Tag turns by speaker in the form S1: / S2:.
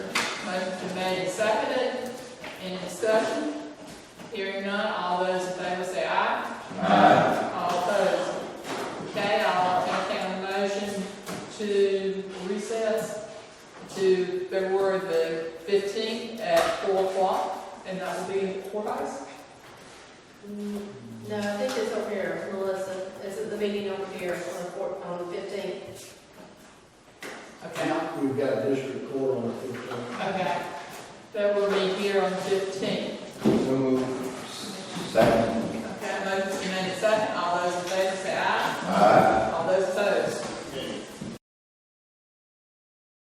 S1: made and seconded, any discussion? Hearing none, all those in favor say aye.
S2: Aye.
S1: All opposed? Okay, I'll entertain a motion to recess to February the fifteenth at four o'clock, and that will be in the courthouse.
S3: Mm, No, I think it's over here, Melissa, it's at the meeting over here on the four, on the fifteenth.
S1: Okay,
S4: We've got district court on the fifteenth.
S1: okay. That will be here on the fifteenth.
S2: So moved. Second.